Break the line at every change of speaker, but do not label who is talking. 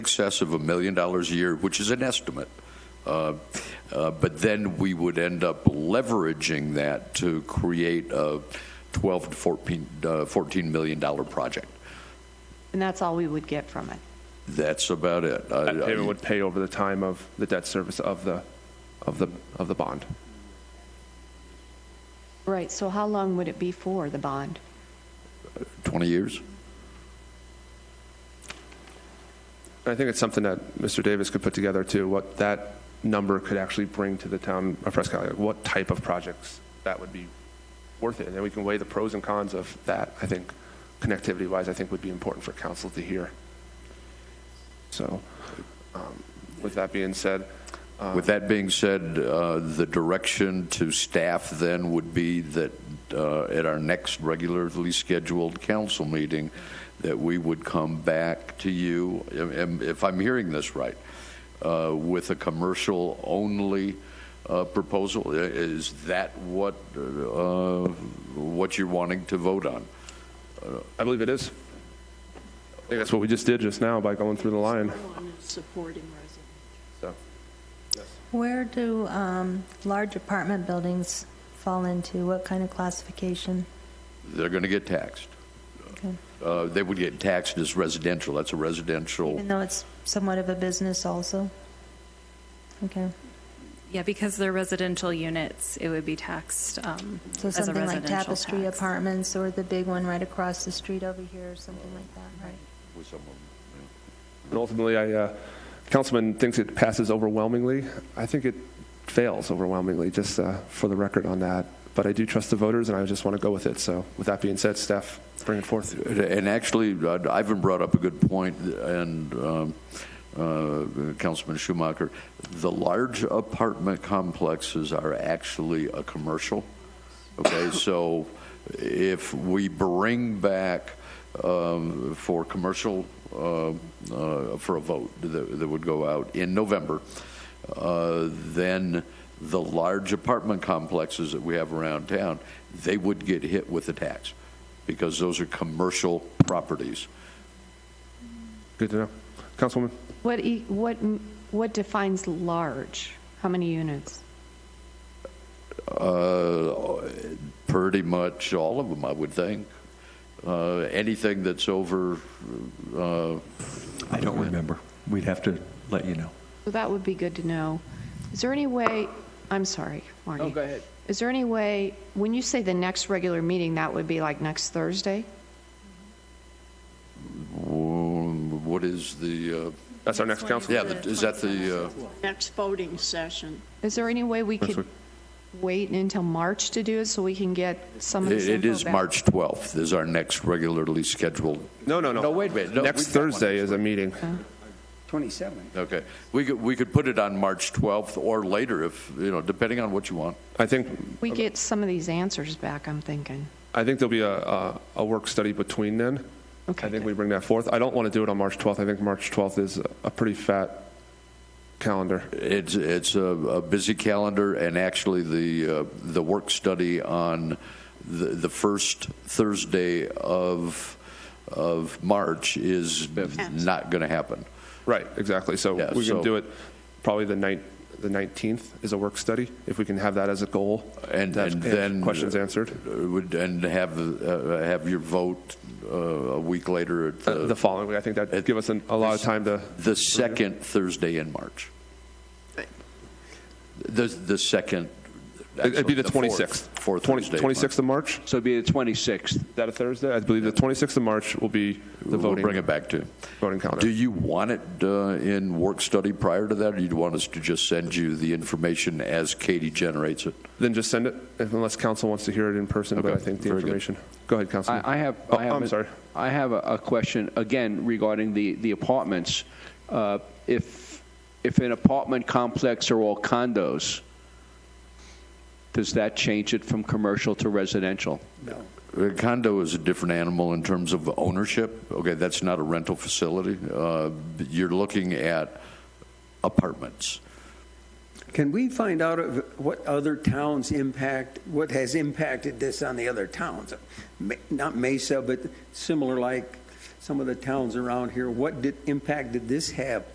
excess of a million dollars a year, which is an estimate. Uh, uh, But then we would end up leveraging that to create a 12 to 14, uh, $14 million dollar project.
And that's all we would get from it.
That's about it. I-
That
I-
payment would pay over the time of the debt service of the, of the, of the bond.
Right, so how long would it be for, the bond?
20 years?
I think it's something that Mr. Davis could put together too, what that number could actually bring to the town of Prescott, like what type of projects that would be worth it. And then we can weigh the pros and cons of that, I think, connectivity-wise, I think would be important for council to hear. So, um, with that being said,
With that being said, uh, the direction to staff then would be that uh, at our next regularly scheduled council meeting, that we would come back to you, am- am- if I'm hearing this right, uh, with a commercial-only uh, proposal. I- Is that what, uh, what you're wanting to vote on?
I believe it is. I think that's what we just did just now by going through the line,
Someone is supporting residents.
so.
Where do um, large apartment buildings fall into? What kind of classification?
They're going to get taxed.
Okay.
Uh, They would get taxed as residential, that's a residential.
Even though it's somewhat of a business also? Okay.
Yeah, because they're residential units, it would be taxed um,
So
as a
something like
residential
Tapestry
tax.
Apartments or the big one right across the street over here or something like that, right?
with someone.
And ultimately, I, uh, Councilman thinks it passes overwhelmingly. I think it fails overwhelmingly, just uh, for the record on that. But I do trust the voters, and I just want to go with it. So with that being said, staff, bring it forth.
And actually, uh, Ivan brought up a good point, and um, uh, Councilman Schumacher, the large apartment complexes are actually a commercial. Okay, so if we bring back um, for commercial, uh, uh, for a vote that that would go out in November, uh, then the large apartment complexes that we have around town, they would get hit with a tax because those are commercial properties.
Good to know. Councilwoman?
What, e- what, m- what defines large? How many units?
Uh, Pretty much all of them, I would think. Uh, Anything that's over, uh,
I don't remember. We'd have to let you know.
So that would be good to know. Is there any way, I'm sorry, Marty. Oh, go ahead. Is there any way, when you say the next regular meeting, that would be like next Thursday?
wh- what is the, uh,
That's our next council.
yeah, the- is that the, uh,
Next voting session.
Is there any way we could
week.
wait until March to do it so we can get some of
it
this
it
info
is
back?
March 12th is our next regularly scheduled.
No, no, no.
No, wait a minute. No,
Next
we've got one
Thursday
next
is a meeting.
27.
Okay. We could, we could put it on March 12th or later if, you know, depending on what you want.
I think,
We get some of these answers back, I'm thinking.
I think there'll be a, a, a work study between then.
Okay,
I
good.
think we bring that forth. I don't want to do it on March 12th. I think March 12th is a pretty fat calendar.
It's, it's a, a busy calendar, and actually, the, uh, the work study on the, the first Thursday of, of March is not going to happen.
Right, exactly. So
Yeah,
we
so-
can do it probably the night, the 19th is a work study, if we can have that as a goal.
And,
to have
and then.
Questions answered
Uh, Would, and have, uh, have your vote uh, a week later at
Uh, the
the,
following week. I think that'd give us an- a lot of time to,
the second Thursday in March. The, the second.
it'd be the
actually, fourth-
26th.
Fourth
20
Thursday. in March.
26th of March,
So it'd be the 26th.
is that a Thursday? I believe the 26th of March will be the
We'll
voting.
bring it back to. you.
voting calendar.
Do you want it uh, in work study prior to that, or you'd want us to just send you the information as Katie generates it?
Then just send it, if- unless council wants to hear it in person, but I
Okay,
think the
very good.
information. Go ahead, Councilman.
I I have.
Oh,
I have
I'm
a-
sorry.
I have a, a question, again, regarding the, the apartments. Uh, If, if an apartment complex are all condos, does that change it from commercial to residential?
A Uh, condo is a different animal in terms of ownership. Okay, that's not a rental facility. Uh, You're looking at apartments.
Can we find out of what other towns impact, what has impacted this on the other towns? Ma- Not Mesa, but similar like some of the towns around here, what did, impact did this have